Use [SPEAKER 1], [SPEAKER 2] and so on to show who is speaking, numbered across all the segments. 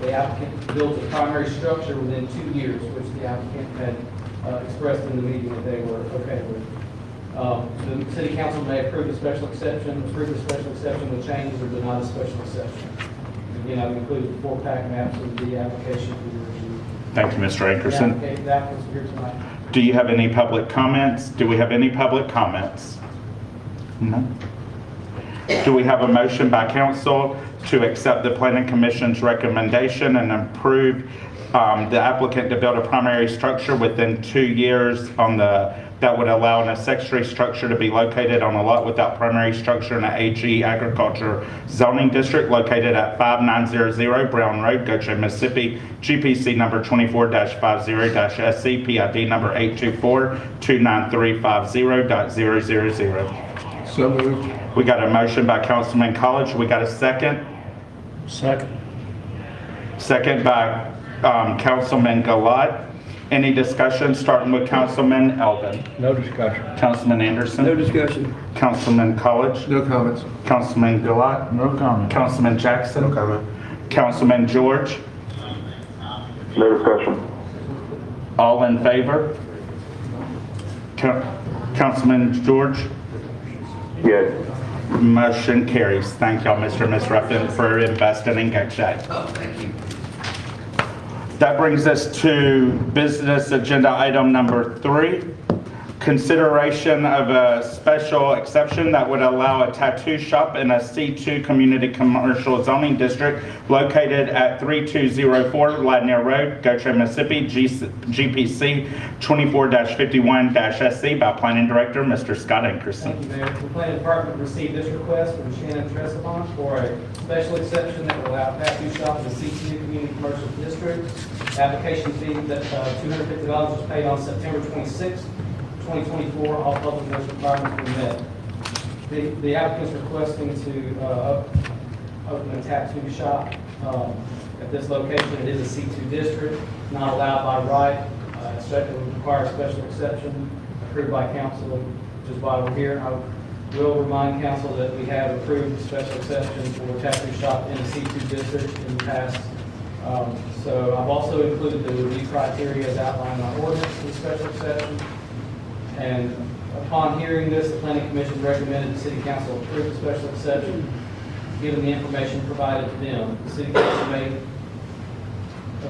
[SPEAKER 1] The applicant builds a primary structure within two years, which the applicant had uh, expressed in the meeting that they were okay with. Um, The city council may approve a special exception, approve a special exception with changes, or deny the special exception. Again, I've included the four pack maps of the application for your review.
[SPEAKER 2] Thank you, Mr. Ankerson.
[SPEAKER 1] The applica- The applicant's here tonight.
[SPEAKER 2] Do you have any public comments? Do we have any public comments? No. Do we have a motion by council to accept the planning commission's recommendation and approve um, the applicant to build a primary structure within two years on the, that would allow an accessory structure to be located on a lot without primary structure in an AG agriculture zoning district located at 5900 Brown Road, Goshen, Mississippi, GPC number 24-50-SC, PID number 824-29350.000.
[SPEAKER 3] So moved.
[SPEAKER 2] We got a motion by Councilman College. We got a second.
[SPEAKER 3] Second.
[SPEAKER 2] Second by um, Councilman Gilat. Any discussion, starting with Councilman Elvin?
[SPEAKER 3] No discussion.
[SPEAKER 2] Councilman
[SPEAKER 4] No
[SPEAKER 2] Anderson?
[SPEAKER 4] discussion.
[SPEAKER 2] Councilman College?
[SPEAKER 3] No comments.
[SPEAKER 2] Councilman Gilat?
[SPEAKER 3] No comment.
[SPEAKER 2] Councilman Jackson? No comment. Councilman George?
[SPEAKER 5] No discussion.
[SPEAKER 2] All in favor? Coun- Councilman George?
[SPEAKER 5] Yes.
[SPEAKER 2] Motion carries. Thank y'all, Mr. and Ms. Ruffin, for investing in Gokche. Oh, thank you. That brings us to business agenda item number three. Consideration of a special exception that would allow a tattoo shop in a C2 Community Commercial Zoning District located at 3204 Ladner Road, Gokche, Mississippi, G- GPC 24-51-SC by Planning Director, Mr. Scott Ankerson.
[SPEAKER 1] Thank you, Mayor. The planning department received this request from Shannon Tresevant for a special exception that will allow tattoo shop in the CTU Community Commercial District. Application fee that uh, two hundred fifty dollars was paid on September twenty-sixth, twenty twenty-four. All public notice requirements were met. The the applicant's requesting to uh, open a tattoo shop um, at this location. It is a C2 district, not allowed by right. Uh, so It would require a special exception approved by council, which is why we're here. I will remind council that we have approved a special exception for tattoo shop in a C2 district in the past. Um, So I've also included the review criteria as outlined in our ordinance for the special exception. And upon hearing this, the planning commission recommended the city council approve the special exception, given the information provided to them. The city council may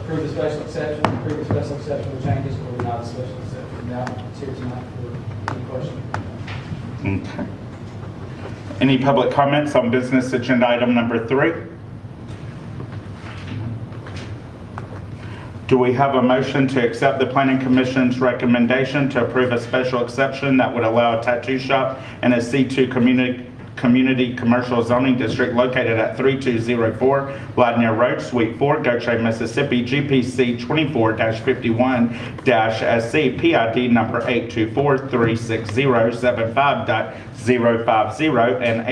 [SPEAKER 1] approve the special exception, approve the special exception with changes, or deny the special exception. Now, it's here tonight for any question.
[SPEAKER 2] Okay. Any public comments on business agenda item number three? Do we have a motion to accept the planning commission's recommendation to approve a special exception that would allow a tattoo shop in a C2 community, community commercial zoning district located at 3204 Ladner Road, Suite 4, Goshen, Mississippi, GPC 24-51-SC, PID number 824-360-75.050 and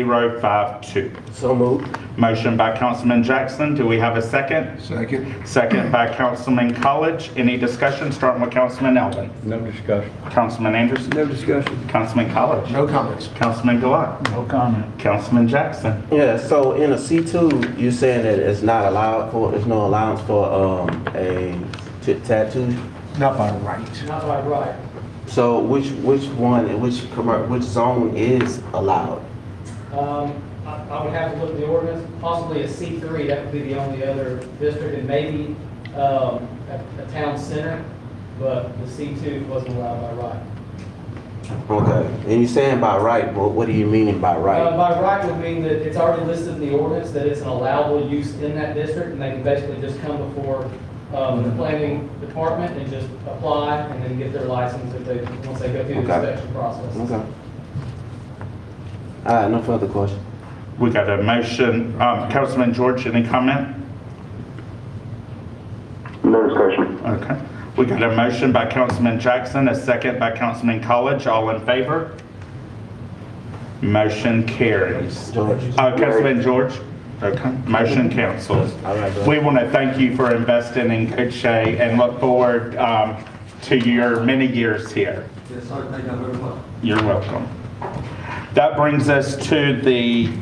[SPEAKER 2] 824-360-75.052.
[SPEAKER 4] So moved.
[SPEAKER 2] Motion by Councilman Jackson. Do we have a second?
[SPEAKER 3] Second.
[SPEAKER 2] Second by Councilman College. Any discussion, starting with Councilman Elvin?
[SPEAKER 3] No discussion.
[SPEAKER 2] Councilman Anderson?
[SPEAKER 4] No discussion.
[SPEAKER 2] Councilman College?
[SPEAKER 3] No comments.
[SPEAKER 2] Councilman Gilat?
[SPEAKER 3] No comment.
[SPEAKER 2] Councilman Jackson?
[SPEAKER 6] Yeah, so in a C2, you're saying that it's not allowed for, there's no allowance for um, a t- tattoo?
[SPEAKER 3] Not by right.
[SPEAKER 1] Not by right.
[SPEAKER 6] So which, which one, which, commer- which zone is allowed?
[SPEAKER 1] Um, I I would have to look at the ordinance, possibly a C3, that would be the only other district, and maybe um, a a town center, but the C2 wasn't allowed by right.
[SPEAKER 6] Okay, and you're saying by right, but what are you meaning by
[SPEAKER 1] Uh,
[SPEAKER 6] right?
[SPEAKER 1] By right would mean that it's already listed in the ordinance that it's an allowable use in that district, and they can basically just come before um, the planning department and just apply and then get their license if they, once they go through the
[SPEAKER 6] Okay.
[SPEAKER 1] inspection process.
[SPEAKER 6] Okay. All right, no further question.
[SPEAKER 2] We got a motion. Um, Councilman George, any comment?
[SPEAKER 5] No discussion.
[SPEAKER 2] Okay. We got a motion by Councilman Jackson, a second by Councilman College. All in favor? Motion carries.
[SPEAKER 6] George?
[SPEAKER 2] Uh, Councilman George? Okay. Motion councils.
[SPEAKER 6] All right, bro.
[SPEAKER 2] We want to thank you for investing in Cookshay and look forward um, to your many years here.
[SPEAKER 1] Yes, sir, thank you very much.
[SPEAKER 2] You're welcome. That brings us to the